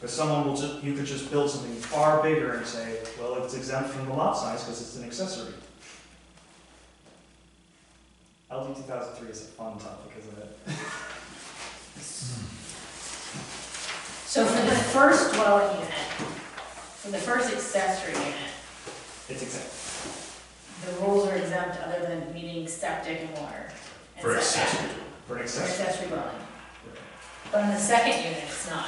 Because someone will just, you could just build something far bigger and say, well, it's exempt from the lot size because it's an accessory. LD two thousand three is a fun topic, isn't it? So for the first dwelling unit, for the first accessory unit, It's exempt. the rules are exempt other than meeting septic and water. and For setback accessory. For an For accessory. accessory dwelling. But on the second unit, it's not.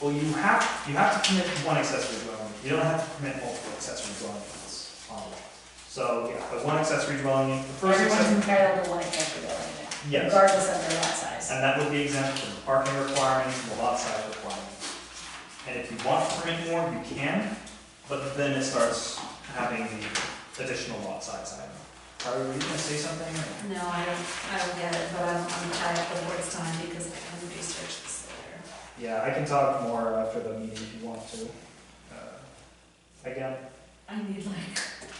Well, you have, you have to permit one accessory dwelling, you don't have to permit multiple accessory dwelling units on a lot. So, yeah, but one accessory dwelling, unit- the first Everyone's accessory, entitled to one accessory dwelling unit. yes. Regardless of their lot size. And that would be exempt from the parking requirements and the lot size requirements. And if you want to permit more, you can, but then it starts having the additional lot size item. Are we gonna say something? or- No, I don't, I don't get it, but I'm, I'm tied up with words time because I can research this later. Yeah, I can talk more after the meeting if you want to. Uh, Again, I need like,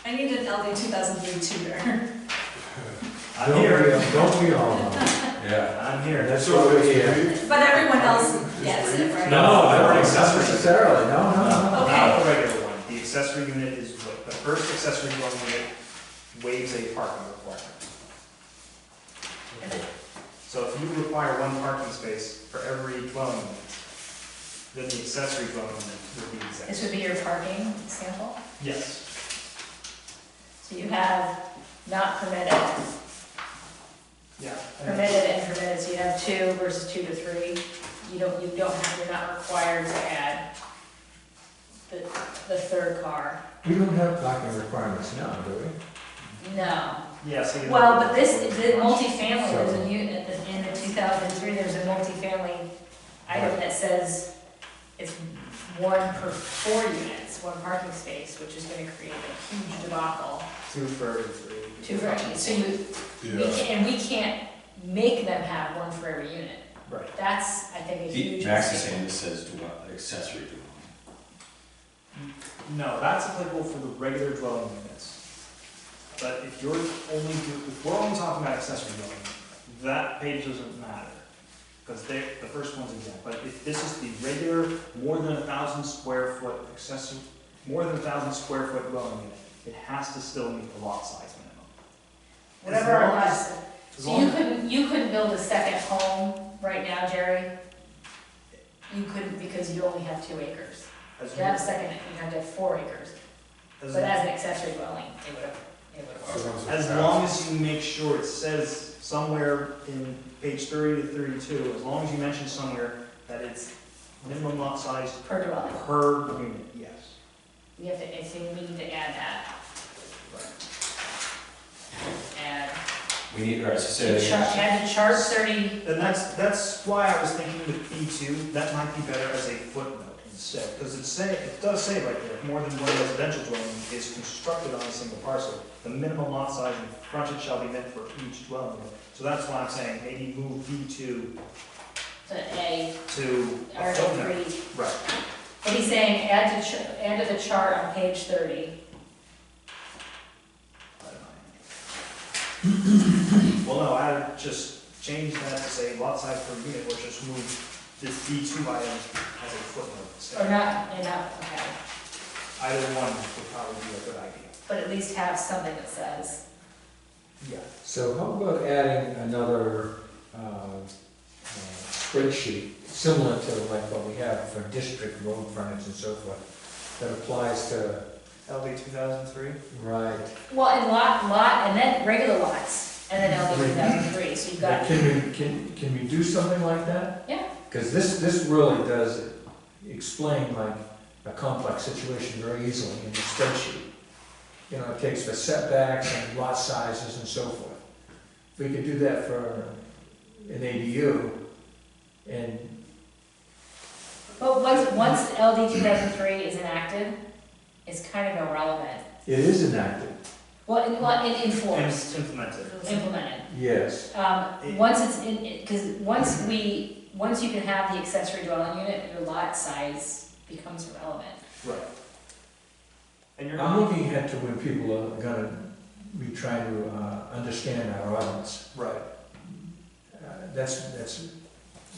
I need an LD two thousand three tutor. I'm here, Don't we all? Yeah. I'm here. That's what we're here. But everyone else gets it, right? No, I don't not think so. Necessarily, no, no, no. Not not the regular one, the accessory unit is, wa- the first accessory dwelling unit waives a parking requirement. So if you require one parking space for every dwelling unit, then the accessory dwelling unit would be This exempt. would be your parking example. Yes, So you have not permitted, yeah. permitted and permitted, so you have two versus two to three. You don't, you don't have, you're not required to add the, the third car. We don't have parking requirements now, do we? No. Yeah, so. you- Well, but this, the multifamily, there's a unit, in the two thousand three, there's a multifamily item that says it's one per four units, one parking space, which is gonna create a huge debacle. Two for every three. Two for, so you, we Yeah. can, and we can't make them have one for every unit. Right. That's, I think, a The- huge. Max is mistake. saying this says dwell, accessory dwelling. No, that's applicable for the regular dwelling units. But if you're only, do- if we're only talking about accessory dwelling, that page doesn't matter. Because they, the first one's exempt, but if this is the regular, more than a thousand square foot accessory, more than a thousand square foot dwelling unit, it has to still meet the lot size minimum. Whatever As our long lot as- size- As So you long, couldn't, you couldn't build a second home right now, Jerry? You couldn't because you only have two acres. as, If you have a second, you have to have four acres, but as, as an accessory dwelling, it would have, it would have worked. as long as you make sure it says somewhere in page thirty to thirty-two, as long as you mention somewhere that it's minimum lot size Per dwelling, Per unit, yes. we have to, I think we need to add that, add, We need, all right, so say to that chart, again. add to chart thirty, And that's, that's why I was thinking with B two, that might be better as a footnote instead, because it say, it does say right there, more than one residential dwelling is constructed on a single parcel, the minimum lot size and frontage shall be met for each dwelling unit. So that's why I'm saying maybe move B two to A, to or a A footnote. three. Right, But he's saying, add to, ch- add to the chart on page thirty, Well, no, I just changed that to say lot size per unit, or just move this B two item as a footnote or instead. not, and not, okay, Either one would probably be a good idea. but at least have something that says, Yeah. So how about adding another um, uh, spreadsheet similar to like what we have for district road frontage and so forth that applies to, LD two thousand three? right, well, and lot, lot, and then regular lots, and then LD two thousand three, so you've got Can we, can, can we do something like that? Yeah. Because this, this really does explain like a complex situation very easily in the spreadsheet. You know, it takes the setbacks and lot sizes and so forth. If we could do that for an ADU and But once, once LD two thousand three is enacted, it's kind of irrelevant. it is enacted, Well, in, well, in, enforced, Implemented. implemented. yes. Um, once it's in, it, cause once we, once you can have the accessory dwelling unit, your lot size becomes irrelevant. Right. And you're I'm not, looking ahead to when people are gonna be trying to uh, understand our audience. right, Uh, That's, that's,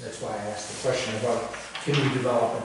that's why I asked the question about, can we develop an